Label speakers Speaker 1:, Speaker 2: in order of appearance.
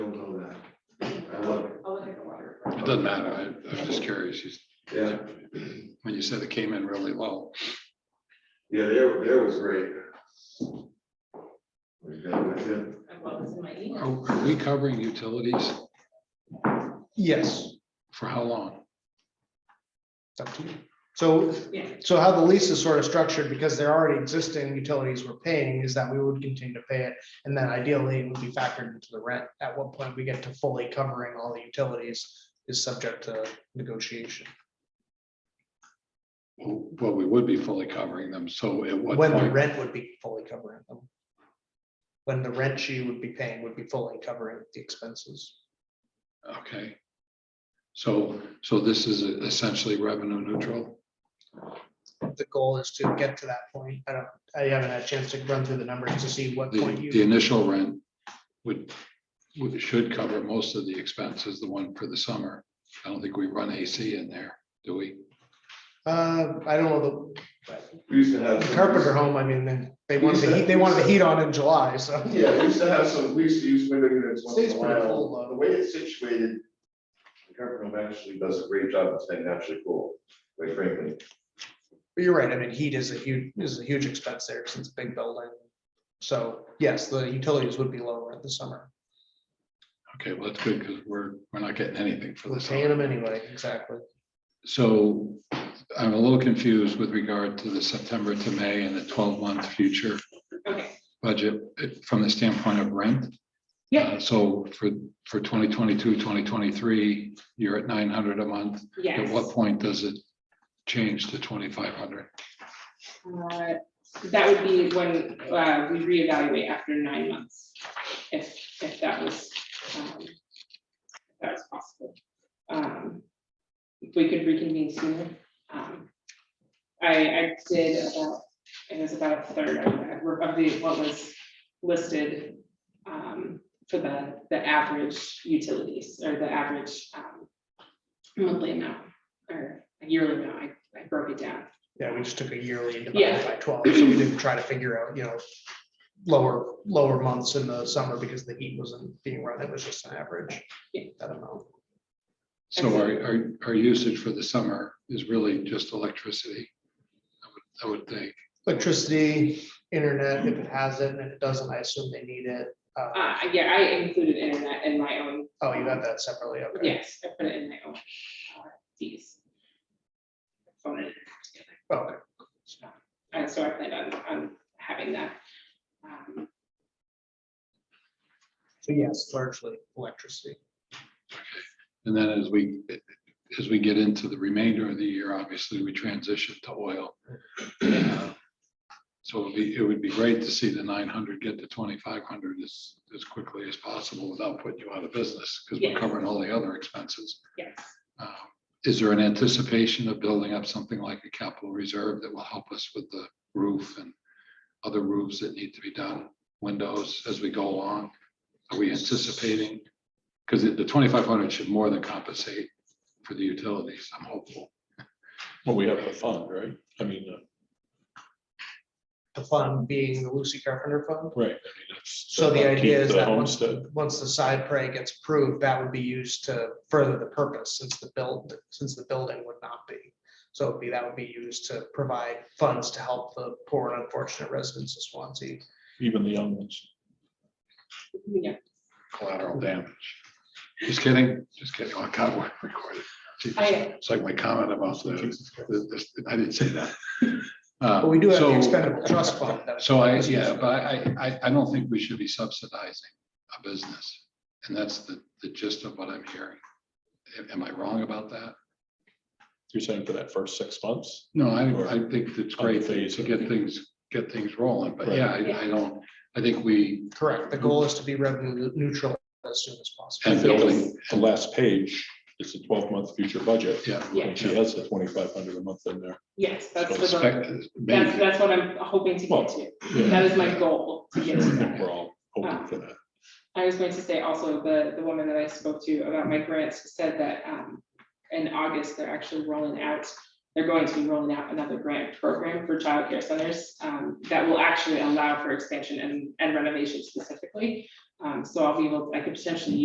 Speaker 1: doesn't matter. I- I was just curious. You-
Speaker 2: Yeah,
Speaker 1: When you said it came in really low.
Speaker 2: yeah, there, there was great. We got with it.
Speaker 3: What was in my email?
Speaker 1: Are are we covering utilities?
Speaker 4: Yes,
Speaker 1: For how long?
Speaker 4: it's up to you. So,
Speaker 3: Yeah.
Speaker 4: so how the lease is sort of structured, because they're already existing utilities we're paying, is that we would continue to pay it. And then ideally, it would be factored into the rent. At what point we get to fully covering all the utilities is subject to negotiation.
Speaker 1: Well, we would be fully covering them. So at what
Speaker 4: When the
Speaker 1: point?
Speaker 4: rent would be fully covering them. When the rent she would be paying would be fully covering the expenses.
Speaker 1: Okay. So, so this is essentially revenue neutral?
Speaker 4: The goal is to get to that point. I don't, I haven't had a chance to run through the numbers to see what
Speaker 1: The,
Speaker 4: point you.
Speaker 1: the initial rent would, would, should cover most of the expenses, the one for the summer. I don't think we run AC in there, do we?
Speaker 4: Uh, I don't know,
Speaker 2: We used to
Speaker 4: the
Speaker 2: have.
Speaker 4: the
Speaker 2: some-
Speaker 4: Carpenter home, I mean, they- they wanted the heat, they wanted the heat on in July, so.
Speaker 2: Yeah, we used to have some, we used to use window units once in
Speaker 4: Stays
Speaker 2: a
Speaker 4: pretty full,
Speaker 2: while.
Speaker 4: though.
Speaker 2: The way it's situated, the Carpenter home actually does a great job of staying naturally cool, quite frankly.
Speaker 4: But you're right, I mean, heat is a huge, is a huge expense there since it's a big building. So yes, the utilities would be lower in the summer.
Speaker 1: Okay, well, that's good because we're, we're not getting anything for
Speaker 4: We're
Speaker 1: the
Speaker 4: paying
Speaker 1: summer.
Speaker 4: them anyway, exactly.
Speaker 1: So I'm a little confused with regard to the September to May and the twelve month future
Speaker 3: Okay,
Speaker 1: budget eh, from the standpoint of rent.
Speaker 3: Yeah.
Speaker 1: Uh, So for, for 2022, 2023, you're at nine hundred a month. At
Speaker 3: yes.
Speaker 1: what point does it change to twenty-five hundred?
Speaker 3: Uh, That would be when uh, we reevaluate after nine months, if, if that was, um, if that was possible. Um, If we could reconvene sooner. um, I, I did about, it was about a third of the- of the, what was listed um, for the, the average utilities or the average um, monthly amount or yearly amount. I- I broke it down.
Speaker 4: Yeah, we just took a yearly and
Speaker 3: Yeah.
Speaker 4: divided by twelve, so we didn't try to figure out, you know, lower, lower months in the summer because the heat wasn't being run, it was just an average.
Speaker 3: Yeah.
Speaker 4: That amount.
Speaker 1: So our, our, our usage for the summer is really just electricity. I would- I would think.
Speaker 4: Electricity, internet, if it has it, and if it doesn't, I assume they need it. Uh,
Speaker 3: Uh, yeah, I included internet in my own,
Speaker 4: oh, you got that separately, okay.
Speaker 3: yes, I put it in my own uh, fees. Phone it together.
Speaker 4: Okay,
Speaker 3: And so I plan on, on having that. um,
Speaker 4: so yes, largely electricity.
Speaker 1: And then as we, as we get into the remainder of the year, obviously, we transition to oil. Uh, So it'd be, it would be great to see the nine hundred get to twenty-five hundred as, as quickly as possible without putting you out of business, because we're
Speaker 3: Yeah.
Speaker 1: covering all the other expenses.
Speaker 3: Yes,
Speaker 1: Uh, Is there an anticipation of building up something like a capital reserve that will help us with the roof and other roofs that need to be done, windows as we go along? Are we anticipating? Because the twenty-five hundred should more than compensate for the utilities, I'm hopeful.
Speaker 5: Well, we have the fund, right? I mean, uh,
Speaker 4: The fund being the Lucy Carpenter Fund.
Speaker 5: right. I mean, that's-
Speaker 4: So the idea
Speaker 5: keep
Speaker 4: is
Speaker 5: the
Speaker 4: that once,
Speaker 5: Homestead,
Speaker 4: once the side prey gets approved, that would be used to further the purpose since the build, since the building would not be. So it'd be, that would be used to provide funds to help the poor and unfortunate residents of Swansea.
Speaker 5: even the young ones.
Speaker 3: yeah,
Speaker 1: Collateral damage. Just kidding, just kidding. Oh, God, we're recorded. Gee,
Speaker 3: I-
Speaker 1: It's like my comment about the, the- the- I didn't say that. Um,
Speaker 4: But we do have the
Speaker 1: So-
Speaker 4: expendable trust fund. that-
Speaker 1: So I, yeah, but I, I, I don't think we should be subsidizing a business. And that's the, the gist of what I'm hearing. Am- Am I wrong about that?
Speaker 5: You're saying for that first six months?
Speaker 1: No, I, I think it's great to
Speaker 5: Phase.
Speaker 1: to get things, get things rolling, but yeah, I, I don't, I think we,
Speaker 4: Correct. The goal is to be revenue neutral as soon as
Speaker 5: I
Speaker 4: possible.
Speaker 5: think the the last page is the twelve month future budget.
Speaker 1: yeah.
Speaker 3: yeah,
Speaker 5: And she has the twenty five hundred a month in there.
Speaker 3: yes, that's,
Speaker 5: So
Speaker 3: what I'm-
Speaker 1: Expect-
Speaker 3: that's,
Speaker 1: maybe-
Speaker 3: that's what I'm hoping to get to. That is my goal to get to
Speaker 5: I think
Speaker 3: that.
Speaker 5: We're all hoping for that.
Speaker 3: I was going to say also, the, the woman that I spoke to about my grants said that um, in August, they're actually rolling out, they're going to be rolling out another grant program for childcare centers um, that will actually allow for expansion and and renovation specifically. Um, So I'll be able, I could potentially